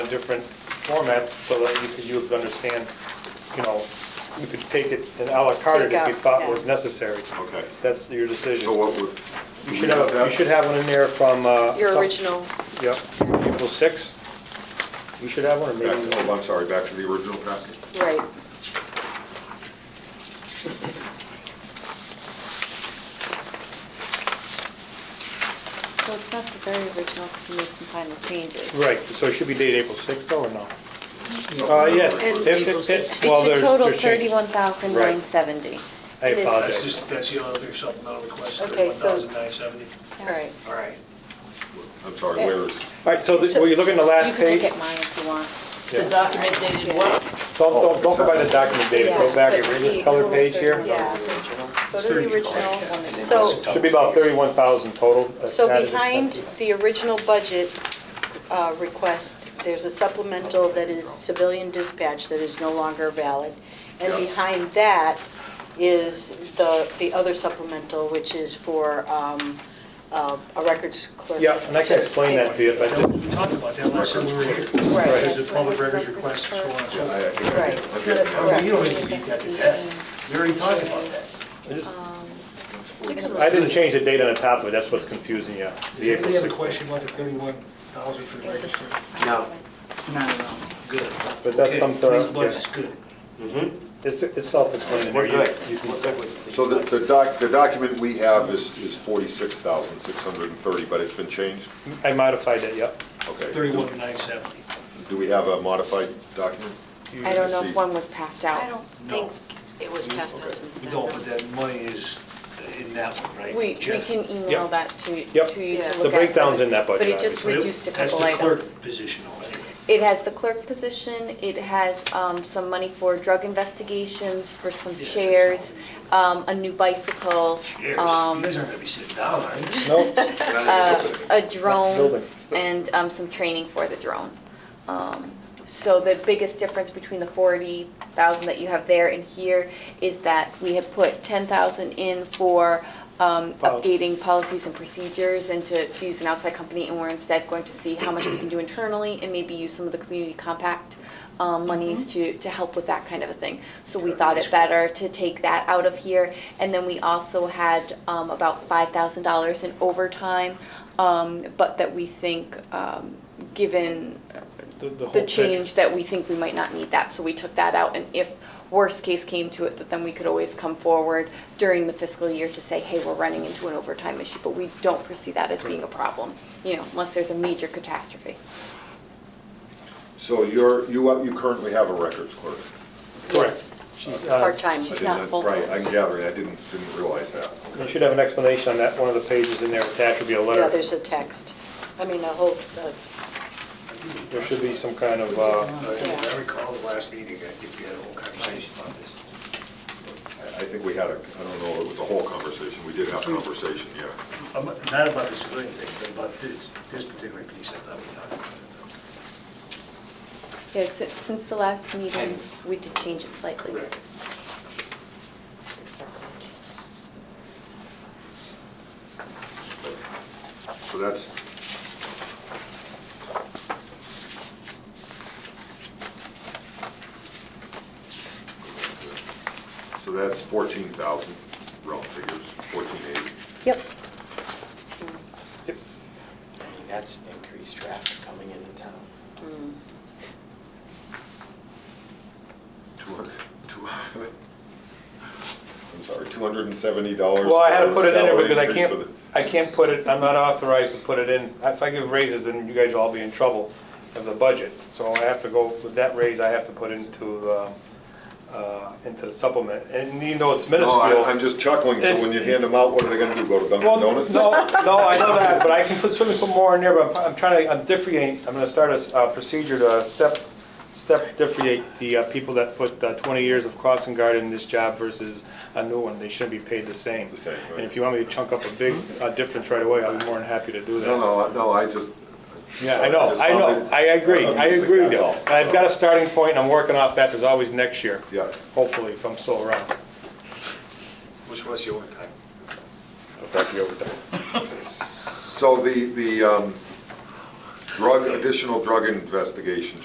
different formats so that you could, you would understand, you know, you could take it and à la carte it Take if you out, thought yeah. was necessary. Okay. That's your decision. So what would? You should have, a- you should have one in there from, uh. Your some- original, Yep, April sixth. You should have one, or Back, maybe, oh, I'm sorry, back to the original packet. right. So it's not the very original, because we made some final changes. right, so it should be dated April sixth, though, or no? No, Oh. Uh, yes. no, It- no, it- April it- 6th. well, It should there's- total there's change. thirty-one thousand nine I seventy. It is. That's apologize. just, that's the only other supplemental request, Okay, so- 1,970. All right. All right. I'm sorry, where is, All right, so this- will you look in the last You page? can look at mine if you want. The document dated what? Don't, Oh. don't, don't go by the document data, go Yeah, back and but read see, this color it's page here. almost Yeah. Go to the original. So, Should be about thirty-one thousand total. uh, so added behind expenses. the original budget uh, request, there's a supplemental that is civilian dispatch that is no longer valid. And Yeah. behind that is the, the other supplemental, which is for um, uh, a records clerk. Yeah, and I can explain that to you, but That was- We talked about that last time we were here. Right. There's a public records request, so on and so I- I forth. think I Right. did. No, Okay. that's now. correct. We don't need to beat that to death. We already talked about that. I didn't change the date on the top of it, that's what's confusing you. The April Did anybody have a 6th. question about the 31,000 for the records? No. No, no. Good. But that's Okay, comes, uh, Police budget's good. It's, it's self-explanatory. We're You- good. you can- We're good with these. So the, the doc, the document we have is, is forty-six thousand, six hundred and thirty, but it's been changed? I modified it, yep. Okay. 31,970. Do we have a modified document? I don't know if See. one was passed out. I don't No. think it was passed out since You then. don't, no. but that money is in that one, right? We, we Jeff? can email Yep. that to, to you to Yep. look at. The but- breakdown's in that budget, But it just obviously. reduced a couple That's the clerk items. position already. It has the clerk position, it has um, some money for drug investigations, for some Yeah, that's chairs, um, a new bicycle, Cheers. You um, guys aren't gonna be sitting down, are you? No, a drone, Building. and um, some training for the drone. Um, So the biggest difference between the forty thousand that you have there and here is that we had put ten thousand in for um, Policy. updating policies and procedures and to, to use an outside company, and we're instead going to see how much we can do internally and maybe use some of the community compact um, monies to, to help with that kind of a thing. So we thought it better to take that out of here, and then we also had um, about five thousand dollars in overtime, um, but that we think, um, given whole the picture. change that we think we might not need that, so we took that out. And if worst case came to it, that then we could always come forward during the fiscal year to say, hey, we're running into an overtime issue, but we don't foresee that as being a problem, you know, unless there's a major catastrophe. So you're, you, you currently have a records clerk? Correct. Yes, uh, Part-time, I she's didn't- not full-time. Right, I'm gathering, I didn't, didn't realize that. You should have an explanation on that, one of the pages in there attached would be a letter. Yeah, there's a text, I mean, a whole, uh, There should be some kind of, uh, I recall the last meeting, I think we had a whole conversation about this. I I think we had a, I don't know, it was a whole conversation, we did have Mm. a conversation, yeah. Um, Not about the civilian thing, but about this, this particular piece I thought we talked about. yeah, si- since the last meeting, And- we did change it slightly. So that's, so that's fourteen thousand, round figures, fourteen eighty. Yep, I mean, that's increased traffic coming into town. Two hundred, two hundred, I'm sorry, two hundred and seventy dollars. well, I had to put it in there because I can't, I can't put it, I'm not authorized to put it in. If I give raises, then you guys will all be in trouble of the budget. So I have to go, with that raise, I have to put into, um, uh, into the supplement. And even though it's minuscule. No, I- I'm just chuckling, so It's- when you hand them out, what are they gonna do, go to Well, Dunkin' Donuts? No, no, I know that, but I can put, certainly put more in there, but I'm trying to, I'm differentiate, I'm gonna start a s- uh, procedure to step, step differentiate the uh, people that put uh, twenty years of crossing guard in this job versus a new one, they shouldn't be paid the same. The same, right. And if you want me to chunk up a big uh, difference right away, I'll be more than happy to do that. No, no, I- no, I just. Yeah, I know, I know, I agree, I agree with you. And I've got a starting point, and I'm working off that, there's always next year. Yeah. Hopefully, if I'm still around, Which was the overtime? I'll be over there. So the, the um, drug, additional drug investigation